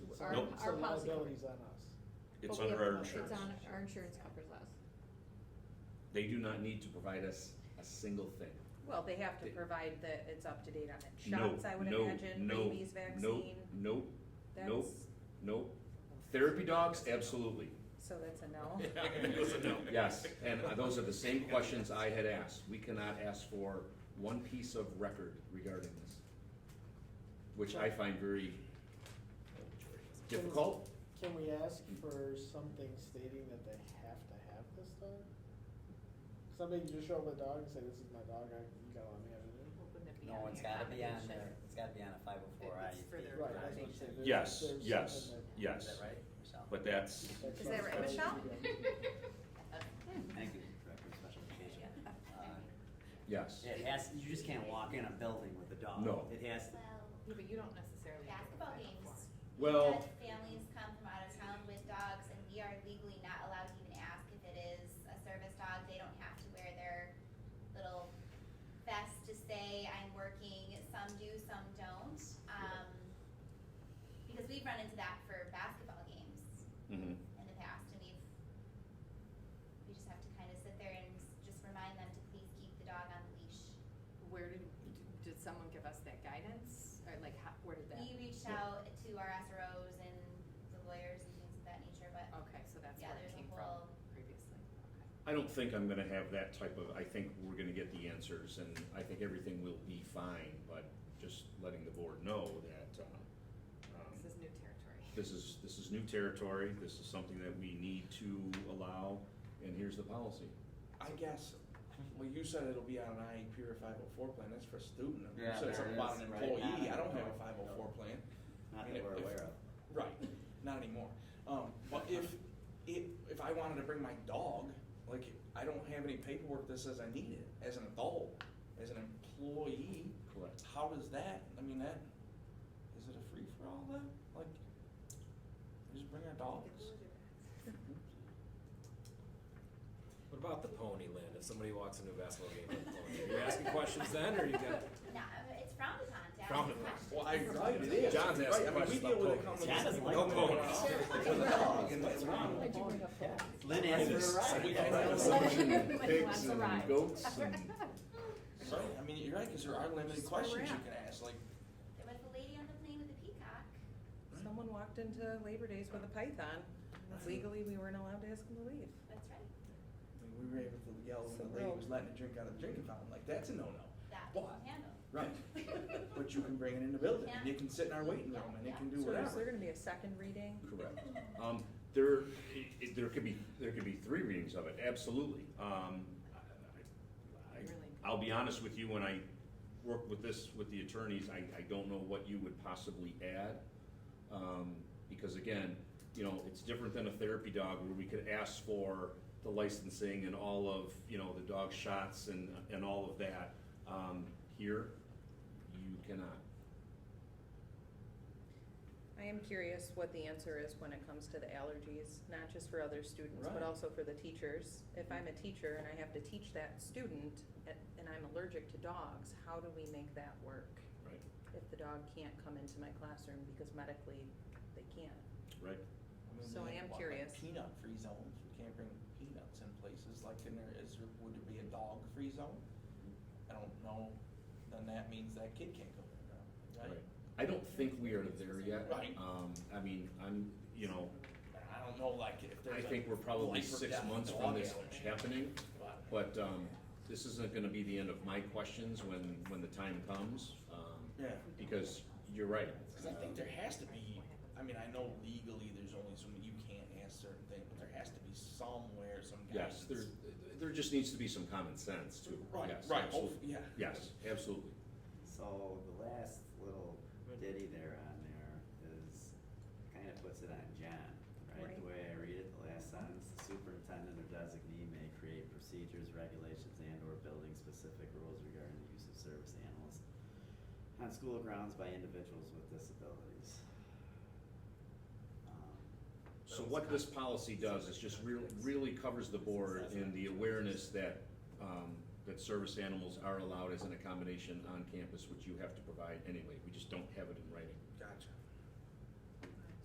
our, Nope. our So policy liability's covers. on us. It's But we under our have- insurance. It's on, our insurance covers us. They do not need to provide us a single thing. Well, they have to They- provide that it's up to date on it. No, Shots, I would no, imagine, no, rabies Nope, vaccine, nope, nope, that's, nope. Therapy dogs, absolutely. so that's a no. Yes, and those are the same questions I had asked. We cannot ask for one piece of record regarding this, which I find very difficult. Can we ask for something stating that they have to have this dog? Somebody can just show up with a dog and say, this is my dog, I, you gotta let me have it. No, it's gotta be on there, it's gotta be on a five oh four I. It's for their Right, that's what I'm saying. There's- Yes, there's yes, something that- yes. Is that right, Michelle? But that's, that's Is that right, what- Michelle? Thank you, Director of Special Education. Uh, yes. It has, you just can't walk in a building with a dog. No. It has, Well, Yeah, but you don't necessarily. have to basketball provide it games. for. Well- we've had Families come from out of town with dogs and we are legally not allowed to even ask if it is a service dog. They don't have to wear their little vest to say I'm working. Some do, some don't. Um, because we've run into that for basketball games Mhm. in the past and we've, we just have to kind of sit there and s- just remind them to please keep the dog on the leash. Where did, did someone give us that guidance, or like, how, where did that? We reached out to our SROs and the lawyers and things of that nature, but Okay, so that's yeah, where it there's a came whole- from previously, okay. I don't think I'm gonna have that type of, I think we're gonna get the answers, and I think everything will be fine, but just letting the board know that, uh, um, This is new territory. this is, this is new territory, this is something that we need to allow, and here's the policy. I guess, well, you said it'll be on an IEP or five oh four plan, that's for a student, you Yeah, said there something it about is, an right, employee, not an I don't have a employee. five oh four plan. not that we're aware of. Right, not anymore, um, but if, if, if I wanted to bring my dog, like, I don't have any paperwork that says I need it, as an adult, as an employee, Correct. how does that, I mean, that, is it a free-for-all then, like, just bring our dogs? What about the pony land? If somebody walks into a basketball game with a pony, are you asking questions then, or you got? No, uh, it's frowned upon to ask Frowned upon. questions. Well, I, right, it is. John's Right, asking I mean, questions we deal about with it ponies. coming John doesn't like with the a dog. With ponies. a dog, and it's wrong. Why'd you bring up that? Lynn asked It is. for a ride. We can't have Right. a- and When he pigs wants a and ride. goats and- Right, I mean, you're right, because there are limited That's where we're questions you at. can ask, like, There was a lady on the plane with a peacock. hmm. Someone walked into Labor Days with a python, legally, we weren't allowed to ask them to leave. That's right. I mean, we were able to yell when the lady Well- was letting a drink out of the drinking fountain, like, that's a no-no. That we What? can handle. Right. But you can bring it in the building, and Yeah. it can sit in our waiting room, and it can do So is there whatever. gonna be a second reading? Correct. Um, there, it, it, there could be, there could be three readings of it, absolutely. Um, I- I, Really? I'll be honest with you, when I worked with this, with the attorneys, I, I don't know what you would possibly add. Um, because again, you know, it's different than a therapy dog where we could ask for the licensing and all of, you know, the dog shots and, and all of that. Um, here, you cannot. I am curious what the answer is when it comes to the allergies, not just for other students, but Right. also for the teachers. If I'm a teacher and I have to teach that student a- and I'm allergic to dogs, how do we make that work? Right. If the dog can't come into my classroom because medically they can't. Right. I mean, So we I have, am what, like, curious. Peanut free zones, we can't bring peanuts in places, like, in there is, would it be a dog free zone? I don't know, then that means that kid can't go there, right? Right. I don't think we are there yet. Right. Um, I mean, I'm, you know, I don't know, like, if there's I a think we're probably life or six death months from dog this allergy, happening, but- but, um, this isn't gonna be the end of my questions when, when the time comes, um, Yeah, because you're right. because I think there has to be, I mean, I know legally there's only so many, you can't ask certain things, but there has to be somewhere, some guidance. Uh, Yes, there, there just needs to be some common sense too. Right, Yes, right, oh, absolutely. yeah. Yes, absolutely. So the last little ditty there on there is, kind of puts it on John, right? The way I read it, the last sentence, the superintendent or designee may create procedures, regulations, and or building-specific rules regarding the use of service animals on school grounds by individuals with disabilities. Um, So what this policy does is just really, really covers the board in the awareness that, um, that service animals are allowed as an accommodation on campus, which you have to provide anyway. We just don't have it in writing. Gotcha.